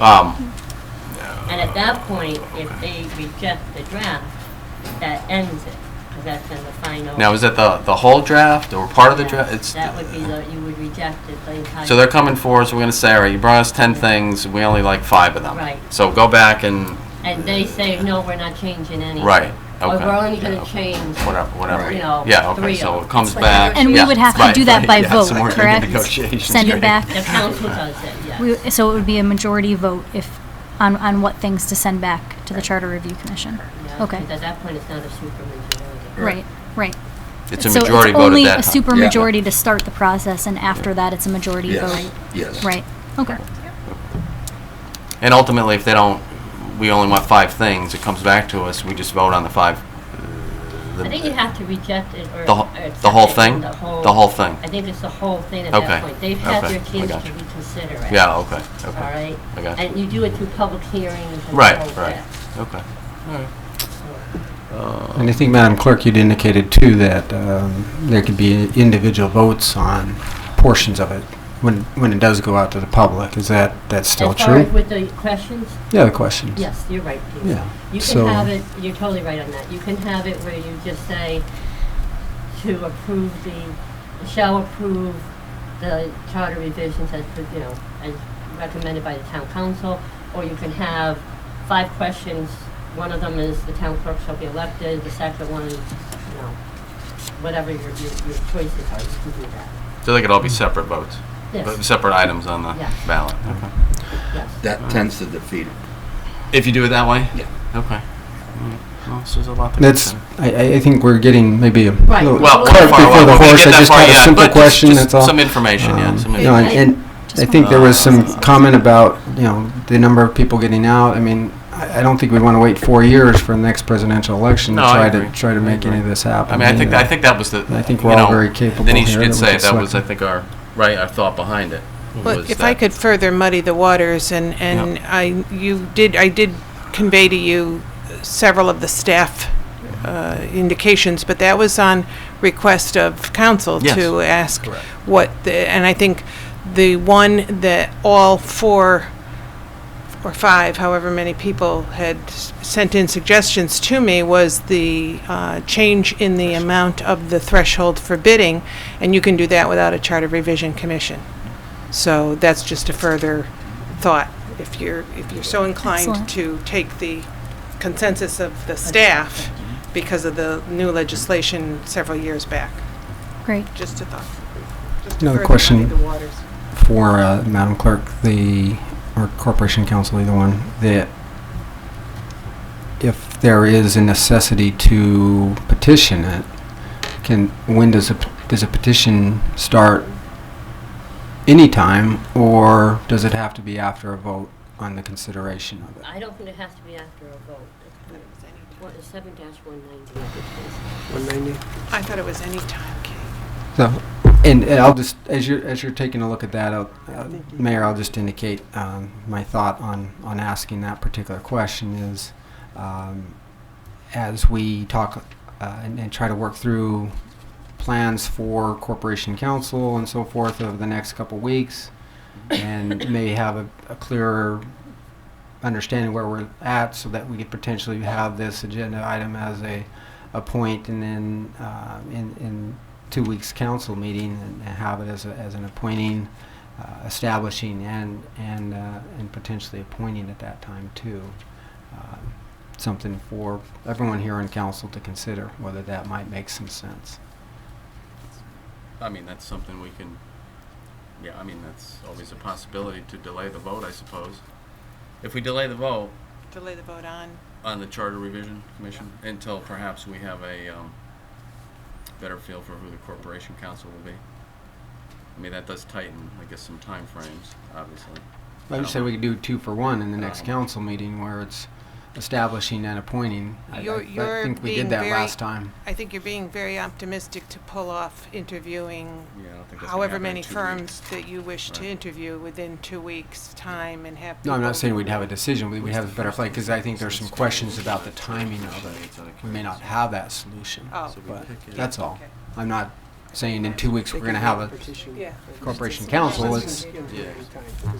Um, And at that point, if they reject the draft, that ends it, because that's in the final. now, is that the, the whole draft or part of the Yeah, draft? It's That would be the, you would reject it, the entire. So they're coming for us, we're gonna say, all right, you brought us ten things, we only like five of them. Right. So go back and, And they say, no, we're not changing anything. right, Or okay. we're only Yeah, gonna okay. change. Whatever, whatever. you know, Yeah, okay, three so of it comes back. And we yeah, would have to right, do that right, by yeah, vote, so we're in correct? negotiations, Send it right. back. The council does it, We, yes. so it would be a majority vote if, on, on what things to send back to the Charter Review Commission. Yeah, Okay, Because at that point, it's not a super majority. right, right. It's a majority vote at that So time. it's only a supermajority to start the process, and after that, it's a majority Yes, vote. yes. Right, okay. And ultimately, if they don't, we only want five things, it comes back to us, we just vote on the five. uh, I think you have to reject it or. The whole- or the accept whole it, thing? The The whole whole. thing? I think it's the whole thing at Okay, that point. They've had okay, their I chance got to you. reconsider it. Yeah, okay, All okay. right? I got you. And you do it through public hearings and the whole Right, right, bit. okay. And I think, Madam Clerk, you'd indicated too that um, there could be individual votes on portions of it when, when it does go out to the public. Is that, that's still As far as true? with the questions, Yeah, the questions. yes, you're right, Peter. Yeah. You can So- have it, you're totally right on that. You can have it where you just say to approve the, shall approve the charter revisions as, pre- you know, as recommended by the town council, or you can have five questions. One of them is the town clerk shall be elected, the second one, is, you know, whatever your, your your choices are, you can do that. So they could all be separate votes, but Yes, separate items on the Yeah. ballot. yes. That tends to defeat it. If you do it that way? Yeah. Okay. Well, this is a lot to That's, consider. I- I, I think we're getting maybe a Right. little Well, Well, cart we're far before away. the We horse. get I that just far want a yet, simple but just- question, just that's all. Some information, yeah, some Um, you know, information. and- and Just I one- think there was some comment about, you know, the number of people getting out. I mean, I I don't think we want to wait four years for the next presidential election to No, I try agree. to, try to I make any agree. of this happen. I mean, I think, I either. think that was the, I think you we're all know, very capable Denise here did that we say could that was, I select- think, our, right, our thought behind it. Well, was if I that- could further muddy the waters, and, and I, you did, I did convey to you several of the staff uh, indications, but that was on request of council Yes. to ask what, the- and I think the one that all four or five, however many people had s- sent in suggestions to me, was the uh, change in the amount of the threshold for bidding, and you can do that without a charter revision commission. So that's just a further thought, if you're, if you're so inclined Excellent. to take the consensus of the staff because of the new legislation several years back. Great. Just a thought. Just to Another further question. muddy the waters. for uh, Madam Clerk, the, or Corporation Council, either one, that if there is a necessity to petition it, can, when does a, p- does a petition start anytime, or does it have to be after a vote on the consideration of it? I don't think it has to be after a vote. What is seven dash one ninety, I think it is. I thought it was any time, Kate. So, and, and I'll just, as you're, as you're taking a look at that, I'll- uh, Mayor, I'll just indicate um, my thought on, on asking that particular question is, um, as we talk uh, and, and try to work through plans for Corporation Council and so forth over the next couple weeks, and may have a, a clearer understanding where we're at so that we could potentially have this agenda item as a, a point and then uh, in, in two weeks council meeting and have it as, a, as an appointing, uh, establishing and, and, uh, and potentially appointing at that time too. Uh, Something for everyone here in council to consider, whether that might make some sense. I mean, that's something we can, yeah, I mean, that's always a possibility to delay the vote, I suppose. If we delay the vote Delay the vote on. on the Charter Revision Commission until perhaps we have a um, better feel for who the Corporation Council will be. I mean, that does tighten, I guess, some timeframes, obviously. I would say we could do two for one in the next council meeting where it's establishing and appointing. I- I- You're- I you're think we being did that very- last time. I think you're being very optimistic to pull off interviewing Yeah, I don't think that's gonna however happen in many two firms that you wish to Right. interview within two weeks' time and have. No, I'm not people- saying we'd have a decision, but we'd have a better flight, because I think there's some questions about the timing of it. We may not have that solution, Oh. but that's all. Okay. I'm not saying in two weeks we're gonna have a Yeah. corporation council, it's, Yeah.